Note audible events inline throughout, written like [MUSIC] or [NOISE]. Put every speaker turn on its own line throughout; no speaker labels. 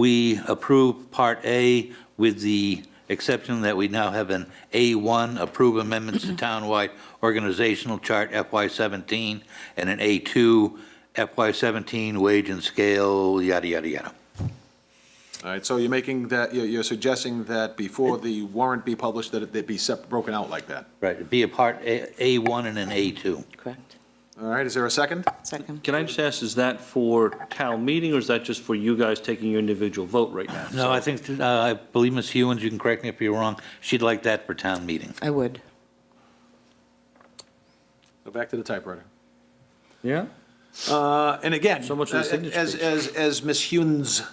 we approve Part A with the exception that we now have an A1, approve amendments to townwide organizational chart FY17, and an A2, FY17 wage and scale, yada, yada, yada.
All right, so you're making that, you're you're suggesting that before the warrant be published, that it that be sep, broken out like that.
Right, be a Part A- A1 and an A2.
Correct.
All right, is there a second?
Second.
Can I just ask, is that for town meeting, or is that just for you guys taking your individual vote right now?
No, I think, uh, I believe Ms. Hewens, you can correct me if you're wrong, she'd like that for town meeting.
I would.
Go back to the typewriter.
Yeah?
Uh, And again,
So much for the signature
as,
page.
as, as Ms. Hewens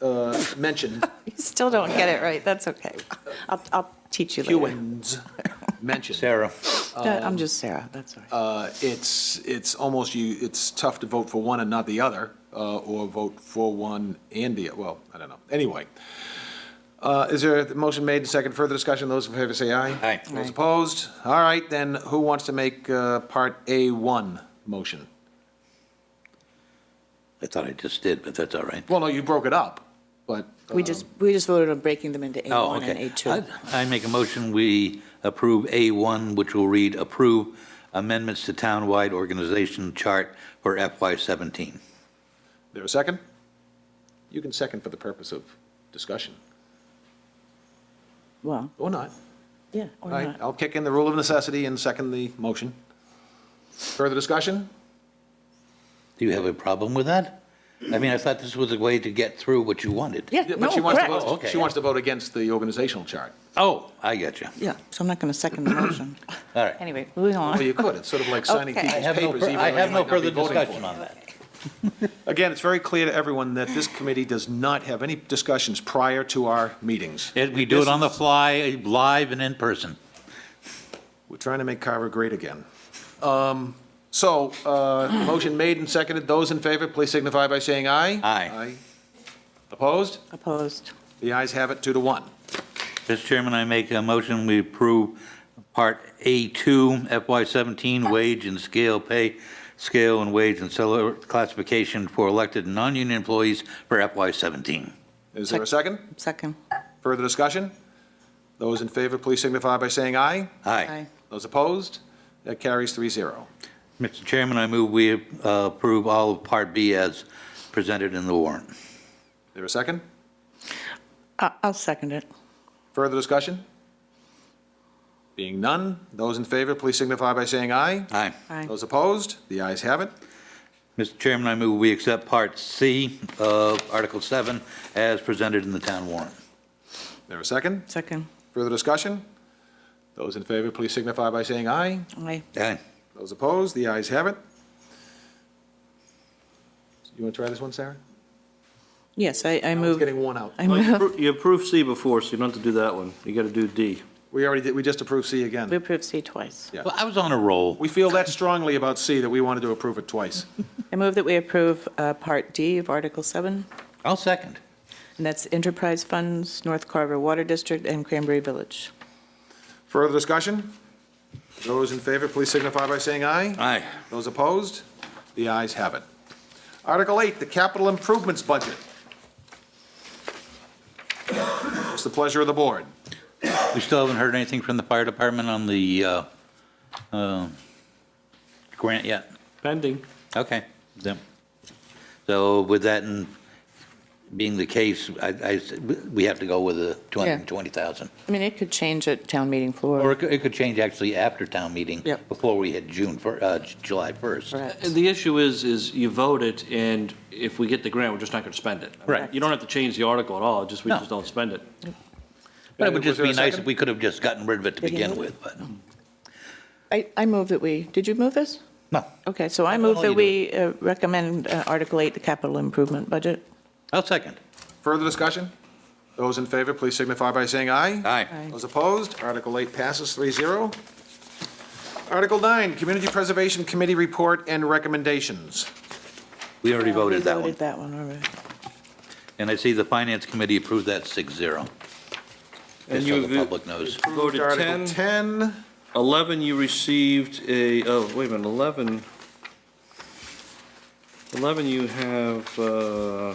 uh,
[LAUGHS]
mentioned,
You still don't get it right, that's okay. I'll, I'll teach you later.
Hewens mentioned,
Sarah?
No,
Um,
I'm just Sarah, that's all right.
uh, it's, it's almost you, it's tough to vote for one and not the other, uh, or vote for one and the, well, I don't know. Anyway, Uh, is there a motion made, second, further discussion? Those in favor say aye.
Aye.
Those opposed? All right, then who wants to make uh, Part A1 motion?
I thought I just did, but that's all right.
Well, no, you broke it up, but. uh,
We just, we just voted on breaking them into
Oh,
A1 and
okay.
A2.
I I make a motion, we approve A1, which will read, approve amendments to townwide organization chart for FY17.
There a second? You can second for the purpose of discussion,
Well,
or not.
yeah,
All
or
right,
not.
I'll kick in the rule of necessity and second the motion. Further discussion?
Do you have a problem with that? I mean, I thought this was a way to get through what you wanted.
Yeah,
Yeah,
no,
But she wants to
correct.
Oh,
vote,
okay.
she wants to vote against the organizational
[LAUGHS]
chart.
Oh, I get you.
Yeah, so I'm not going to second the motion.
All right.
[COUGHS] Anyway, moving
Well,
on.
you could, it's sort of like signing
Okay.
people's
I have no, fur-
papers even though
I
you
have no
might not be
further
voting for
discussion
them.
on that.
Again, it's very clear to everyone that this committee does not have any discussions prior to our meetings.
It- We do it on the fly, live and in person.
We're trying to make Carver great again. Um, So, uh, motion made and seconded, those in favor, please signify by saying aye.
Aye.
Opposed?
Opposed.
The ayes have it, two to one.
Mr. Chairman, I make a motion, we approve Part A2 FY17 wage and scale pay, scale and wage and salary classification for elected and non-union employees for FY17.
Is there a second?
Second.
Further discussion? Those in favor, please signify by saying aye.
Aye.
Aye.
Those opposed? That carries three zero.
Mr. Chairman, I move we uh, approve all of Part B as presented in the warrant.
There a second?
I- Uh, I'll second it.
Further discussion? Being none, those in favor, please signify by saying aye.
Aye.
Aye.
Those opposed? The ayes have it.
Mr. Chairman, I move we accept Part C of Article 7 as presented in the town warrant.
There a second?
Second.
Further discussion? Those in favor, please signify by saying aye.
Aye.
Aye.
Those opposed? The ayes have it. You want to try this one, Sarah?
Yes, I, I
It's
move,
getting worn out.
I
Well, you
move,
appro- You approved C before, so you don't have to do that one. You got to do D.
We already did, we just approved C again.
[LAUGHS] we approve C twice.
Yeah.
Well, I was on a roll.
We feel that strongly about C that we wanted to approve it twice.
I move that we approve uh, Part D of Article 7,
I'll second.
and that's enterprise funds, North Carver Water District, and Cranberry Village.
Further discussion? Those in favor, please signify by saying aye.
Aye.
Those opposed? The ayes have it. Article 8, the capital improvements budget. What's the pleasure of the board?
We still haven't heard anything from the fire department on the uh, uh, grant yet?
Pending.
Okay. then. So with that in- being the case, I, I- we have to go with the 220,000.
I mean, it could change at town meeting
Or
floor.
it could- it could change actually after town meeting.
Yep.
Before we hit June, fir- uh, J- July 1st.
Correct.
Uh, The issue is, is you vote it, and if we get the grant, we're just not going to spend it.
Right.
You don't have to change the article at all, just, we
No.
just don't spend it.
But it would just
Was there
be
a
nice
second?
if we could have just gotten rid of it to
Did he
begin
move
with, but,
I, I move that we, did you move this?
no,
Okay, so I
No,
move
no,
that
you do
we uh, recommend uh, Article 8, the capital improvement budget.
I'll second.
Further discussion? Those in favor, please signify by saying aye.
Aye.
Those opposed? Article 8 passes 3-0. Article 9, Community Preservation Committee report and recommendations.
We already voted that one.
We voted that one, all right.
And I see the finance committee approved that 6-0. Just so the public knows.
Voted
Article
10,
10,
11, you received a, oh, wait a minute, 11, 11, you have, uh,